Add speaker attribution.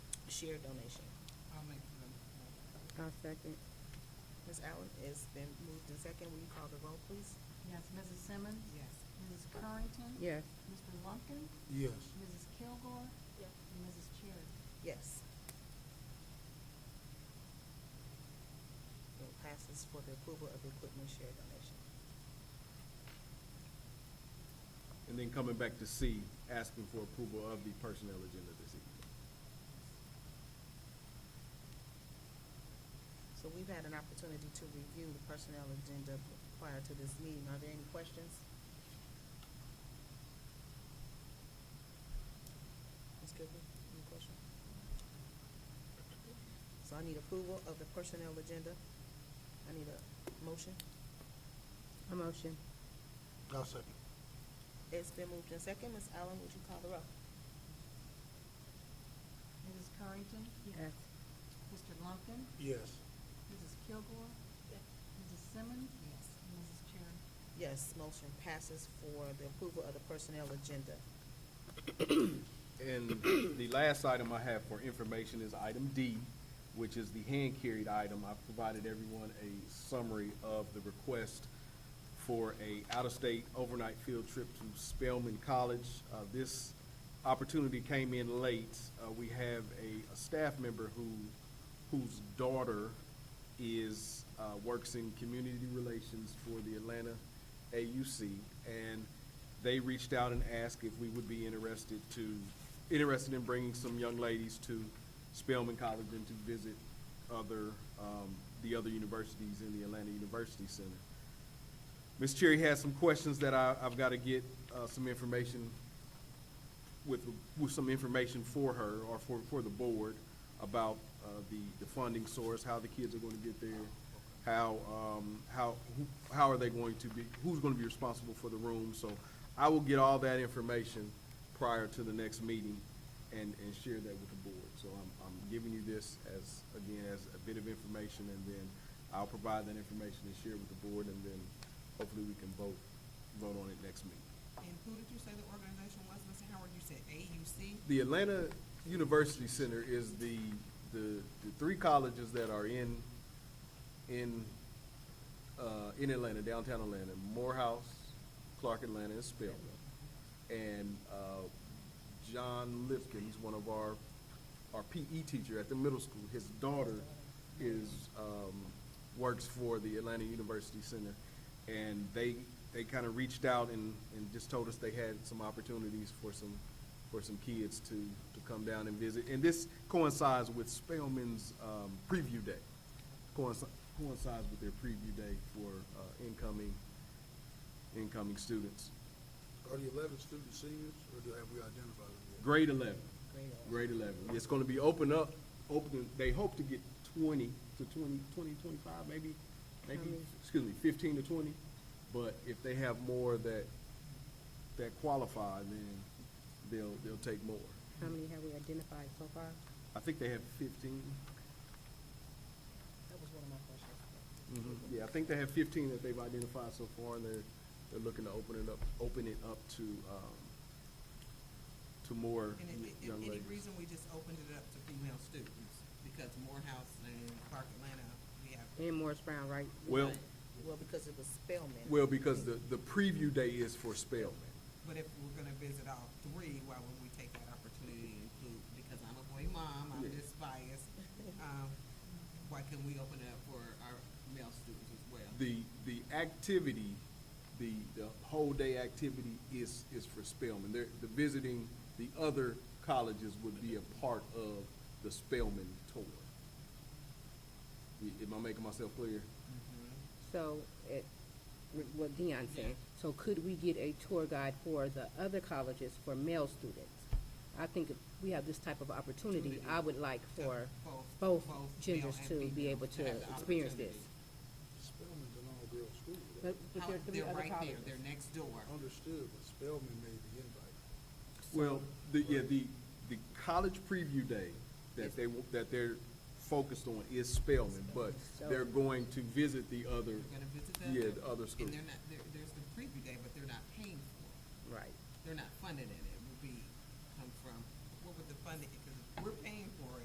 Speaker 1: cheer donation.
Speaker 2: I'll make the motion.
Speaker 3: I'll second.
Speaker 1: Ms. Allen, it's been moved in second. Will you call the roll, please?
Speaker 4: Yes, Mrs. Simmons?
Speaker 2: Yes.
Speaker 4: Mrs. Currington?
Speaker 3: Yes.
Speaker 4: Mr. Lumpkin?
Speaker 5: yes,
Speaker 4: Mrs. Kilgore? And Mrs. Cherry?
Speaker 1: Yes. It passes for the approval of the equipment share donation.
Speaker 6: And then coming back to C, asking for approval of the personnel agenda this evening.
Speaker 1: So we've had an opportunity to review the personnel agenda prior to this meeting. Are there any questions? Ms. Goodwin, any question? So I need approval of the personnel agenda. I need a motion.
Speaker 3: A motion.
Speaker 5: I'll second.
Speaker 1: It's been moved in second. Ms. Allen, would you call the roll?
Speaker 4: Mrs. Currington?
Speaker 3: Yes.
Speaker 4: Mr. Lumpkin?
Speaker 5: Yes,
Speaker 4: Mrs. Kilgore? Mrs. Simmons? Yes. And Mrs. Cherry?
Speaker 1: Yes, motion passes for the approval of the personnel agenda.
Speaker 6: And the last item I have for information is item D, which is the hand-carried item. I've provided everyone a summary of the request for a out-of-state overnight field trip to Spelman College. Uh, this opportunity came in late. Uh, we have a, a staff member who, whose daughter is, uh, works in community relations for the Atlanta AUC. And they reached out and asked if we would be interested to, interested in bringing some young ladies to Spelman College and to visit other, um, the other universities in the Atlanta University Center. Ms. Cherry has some questions that I, I've got to get, uh, some information with, with some information for her or for, for the board about, uh, the, the funding source, how the kids are going to get there, how, um, how, who- how are they going to be, who's going to be responsible for the room? So I will get all that information prior to the next meeting and, and share that with the board. So I'm, I'm giving you this as, again, as a bit of information and then I'll provide that information and share with the board and then hopefully we can vote, vote on it next meeting.
Speaker 2: And who did you say the organization was, Mr. Howard? You said AUC?
Speaker 6: The Atlanta University Center is the, the, the three colleges that are in, in, uh, in Atlanta, downtown Atlanta, Morehouse, Clark Atlanta, and Spelman. And, uh, John Lifkins, one of our, our PE teacher at the middle school, his daughter is, um, works for the Atlanta University Center. And they, they kind of reached out and, and just told us they had some opportunities for some, for some kids to, to come down and visit. And this coincides with Spelman's um, preview day, coinci- coincides with their preview day for uh, incoming, incoming students.
Speaker 5: are the eleven student seniors, or do, have we identified them yet?
Speaker 6: Grade 11,
Speaker 1: Great.
Speaker 6: grade 11. It's going to be open up, open, they hope to get 20 to 20, 20, 25, maybe, maybe,
Speaker 3: many?
Speaker 6: excuse me, 15 to 20. But if they have more that, that qualify, then they'll, they'll take more.
Speaker 3: How many have we identified so far?
Speaker 6: I think they have 15.
Speaker 1: That was one of my questions.
Speaker 6: Mhm. Yeah, I think they have fifteen that they've identified so far, and they're, they're looking to open it up, open it up to, um, to more
Speaker 2: And
Speaker 6: y-
Speaker 2: is it- is
Speaker 6: young
Speaker 2: any
Speaker 6: ladies.
Speaker 2: reason we just opened it up to female students? Because Morehouse and Clark Atlanta, we have,
Speaker 3: And Morris Brown, right?
Speaker 6: Well,
Speaker 1: Well, because it was Spelman.
Speaker 6: well, because the, the preview day is for Spelman.
Speaker 2: but if we're gonna visit all three, why wouldn't we take that opportunity to include? Because I'm a boy mom, I'm
Speaker 6: Yeah.
Speaker 2: just biased. Um, Why can't we open it up for our male students as well?
Speaker 6: The, the activity, the, the whole day activity is, is for Spelman. They're, the visiting, the other colleges would be a part of the Spelman tour. Y- Am I making myself clear?
Speaker 3: So, it, with what Deion said, so could we get a tour guide for the other colleges for male students? I think if we have this type of opportunity, I would like for
Speaker 2: Both-
Speaker 3: both
Speaker 2: both male
Speaker 3: genders
Speaker 2: and
Speaker 3: to be
Speaker 2: female
Speaker 3: able to
Speaker 2: have the
Speaker 3: experience this.
Speaker 2: opportunity.
Speaker 5: Spelman's an all-girls school, though.
Speaker 3: But, but
Speaker 2: How-
Speaker 3: there are three
Speaker 2: They're
Speaker 3: other
Speaker 2: right there,
Speaker 3: colleges.
Speaker 2: they're next door.
Speaker 5: understood, but Spelman made the invite.
Speaker 6: Well, the, yeah, the, the college preview day that they, w- that they're focused on is Spelman, but they're going to visit the other,
Speaker 2: We're gonna visit them.
Speaker 6: yeah, the other schools.
Speaker 2: And they're not, there, there's the preview day, but they're not paying for it.
Speaker 3: Right.
Speaker 2: They're not funded in it.